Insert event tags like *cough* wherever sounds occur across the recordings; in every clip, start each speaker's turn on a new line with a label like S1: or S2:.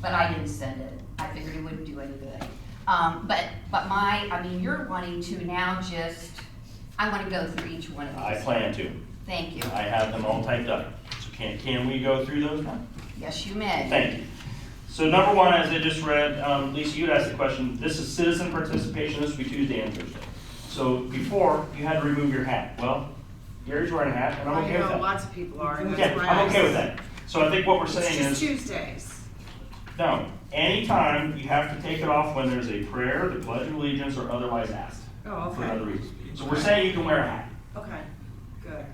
S1: but I didn't send it. I figured it wouldn't do any good. Um, but, but my, I mean, you're wanting to now just, I wanna go through each one of
S2: I
S1: these.
S2: plan to.
S1: Thank you.
S2: I have them all typed up. So can, can we go through those now?
S1: Yes, you may.
S2: Thank you. So number one, as I just read, um, Lisa, you'd asked the question, this is citizen participation, this will be Tuesday and Thursday. So before, you had to remove your hat. Well, Gary's wearing a hat, and I'm
S3: I
S2: okay with
S3: know,
S2: that.
S3: lots of people are, and
S2: Yeah,
S3: that's why I.
S2: I'm okay with that. So I think what we're
S3: It's
S2: saying
S3: just
S2: is,
S3: Tuesdays.
S2: no, anytime you have to take it off when there's a prayer, the pledge of allegiance, or otherwise asked
S3: Oh,
S2: for another
S3: okay,
S2: reason. So we're saying you can wear a hat.
S3: okay, good.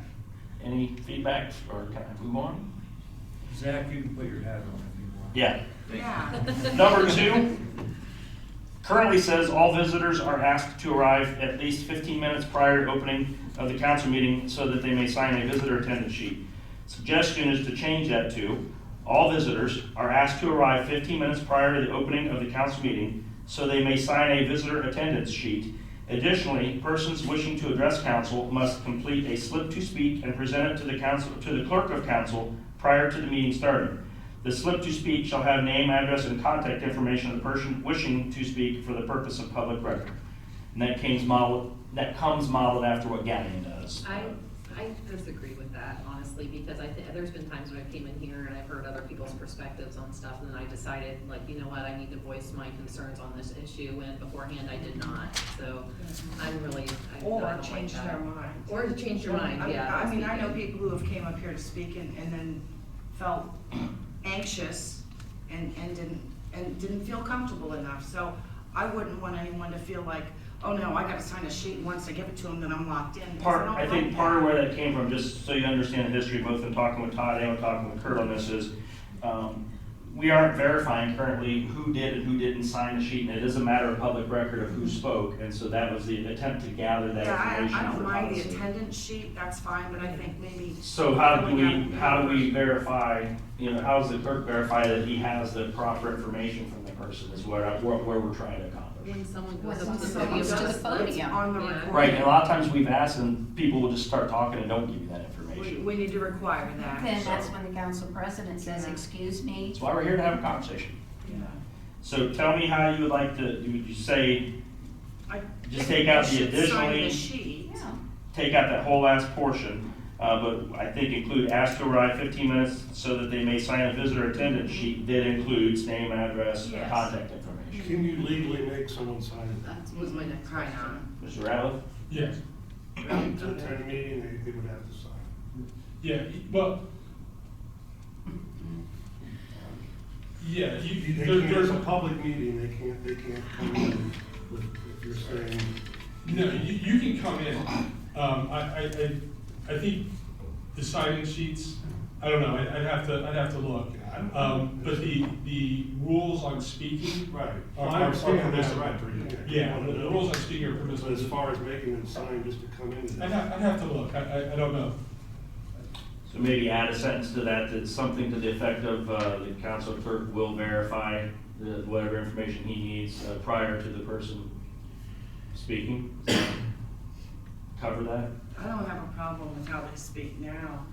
S2: Any feedback, or can I move on?
S4: Zach, you can put your hat on if you want.
S2: Yeah.
S3: Yeah,
S5: *laughs*
S2: Number two, currently says all visitors are asked to arrive at least 15 minutes prior to opening of the council meeting so that they may sign a visitor attendance sheet. Suggestion is to change that to, all visitors are asked to arrive 15 minutes prior to the opening of the council meeting so they may sign a visitor attendance sheet. Additionally, persons wishing to address council must complete a slip to speak and present it to the council, to the clerk of council prior to the meeting starting. The slip to speak shall have name, address, and contact information of the person wishing to speak for the purpose of public record. And that comes modeled, that comes modeled after what Gavin does.
S5: I, I disagree with that honestly, because I think, there's been times when I came in here and I've heard other people's perspectives on stuff, and then I decided, like, you know what, I need to voice my concerns on this issue, and beforehand I did not, so I'm really, I I
S3: Mm-hmm.
S5: don't
S3: or
S5: like
S3: change
S5: that.
S3: their mind.
S5: Or to change your
S3: I-
S5: mind, yeah.
S3: I mean, I know people who have came up here to speak and, and then felt *clears throat* anxious and, and didn't, and didn't feel comfortable enough, so I wouldn't want anyone to feel like, oh no, I gotta sign a sheet, and once I give it to them, then I'm locked in. because
S2: Part,
S3: don't
S2: I think
S3: like
S2: part of
S3: that.
S2: where that came from, just so you understand the history, both in talking with Todd and talking with Kurt on this is, um, we aren't verifying currently who did and who didn't sign the sheet, and it is a matter of public record of who spoke, and so that was the attempt to gather that
S3: Yeah,
S2: information
S3: I, I
S2: for
S3: don't mind the
S2: policy.
S3: attendance sheet, that's fine, but I think maybe,
S2: So how do we, how do we verify, you know, how does the clerk verify that he has the proper information from the person is where, I- where, where we're trying to accomplish?
S5: When someone
S1: When
S5: goes up to the
S1: someone
S5: podium.
S1: goes to the
S5: just-
S1: podium.
S3: it's on the
S5: Yeah.
S3: recording.
S2: Right, and a lot of times we've asked and people will just start talking and don't give you that
S3: We,
S2: information.
S3: we need to require that.
S1: Then that's when the council president says, excuse me,
S2: That's why we're here to have a conversation.
S3: Yeah.
S2: So tell me how you would like to, would you say,
S3: I
S2: just take out the
S3: should sign the
S2: additionally,
S3: sheet.
S1: yeah.
S2: take out that whole last portion, uh, but I think include ask to arrive fifteen minutes so that they may sign a visitor attendance sheet that includes name, address, and
S3: Yes.
S2: contact information.
S6: Can you legally make someone sign it?
S5: That was my next
S3: Probably
S5: question.
S3: not.
S2: Mr. Ratliff?
S7: Yes,
S6: At a meeting, they, they would have to sign.
S7: yeah, well. Yeah,
S6: They
S7: you, there,
S6: can't,
S7: there's
S6: it's a
S7: a,
S6: public meeting, they can't, they can't come in with, if you're saying,
S7: no, you, you can come in. Um, I, I, I, I think the sign-in sheets, I don't know, I'd, I'd have to, I'd have to look. Um, but the, the rules on speaking.
S6: right.
S7: Are-
S6: I
S7: are-
S6: understand
S7: are
S6: that,
S7: permissible.
S6: right, but you-
S7: Yeah,
S6: you
S7: the
S6: wanna know.
S7: rules on speaking are
S6: But as
S7: permissible.
S6: far as making them sign just to come in.
S7: I'd have, I'd have to look, I, I, I don't know.
S2: So maybe add a sentence to that, that's something to the effect of, uh, the council clerk will verify the, whatever information he needs uh, prior to the person speaking. *coughs* Cover that?
S3: I don't have a problem with how they speak now.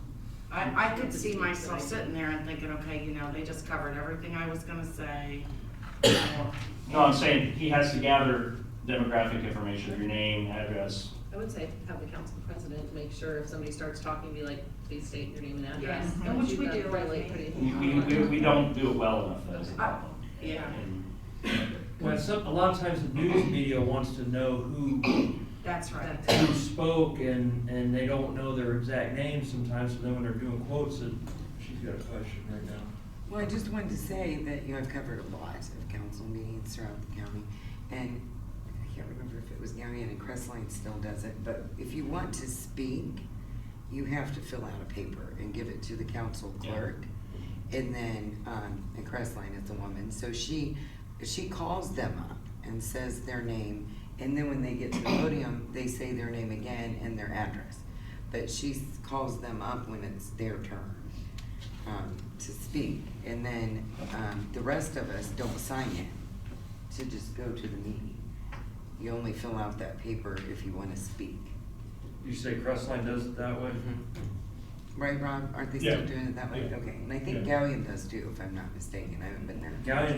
S3: I, I could see myself sitting there and thinking, okay, you know, they just covered everything I was
S1: *coughs*
S3: gonna say.
S2: No, I'm saying he has to gather demographic information, your name, address.
S5: I would say have the council president make sure if somebody starts talking, be like, please state your name and address.
S3: Yeah.
S5: but
S3: Which
S5: you've
S3: we
S5: got
S3: do, I
S5: really
S3: think.
S5: pretty-
S2: We, we, we- we don't do it well enough, that's the problem.
S3: Yeah,
S2: And
S4: Well, some, a lot of times the news media wants to know who,
S3: that's right.
S4: who spoke and, and they don't know their exact name sometimes, so then when they're doing quotes, it, she's got a question right now.
S8: Well, I just wanted to say that, you know, I've covered a lot of council meetings throughout the county, and I can't remember if it was Galleon and Crestline still does it, but if you want to speak, you have to fill out a paper and give it to the council
S2: Yeah.
S8: clerk. And then, um, and Crestline is the woman, so she, she calls them up and says their name, and then when they get to the podium, they say their name again and their address. But she calls them up when it's their turn um, to speak, and then, um, the rest of us don't sign it to just go to the meeting. You only fill out that paper if you wanna speak.
S4: You say Crestline does it that way?
S8: right, Rob? Aren't they still
S7: Yeah.
S8: doing it that way?
S7: Yeah.
S8: Okay, and I think
S7: Yeah.
S8: Galleon does too, if I'm not mistaken, I haven't been there.
S4: Galleon